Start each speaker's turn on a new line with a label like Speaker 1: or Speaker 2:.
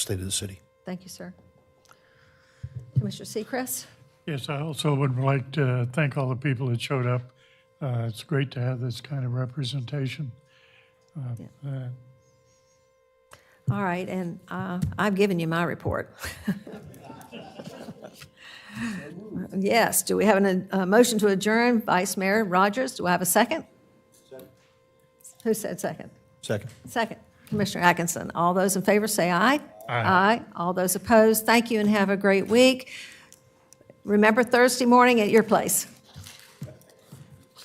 Speaker 1: state of the city.
Speaker 2: Thank you, sir. Commissioner Seacrest?
Speaker 3: Yes, I also would like to thank all the people that showed up. Uh, It's great to have this kind of representation. Uh, uh,
Speaker 2: All right, and uh, I've given you my report. Yes, do we have an, a motion to adjourn? Vice Mayor Rogers, do I have a second? Who said second?
Speaker 1: Second.
Speaker 2: Second. Commissioner Atkinson, all those in favor say aye.
Speaker 3: Aye.
Speaker 2: All those opposed, thank you and have a great week. Remember Thursday morning at your place.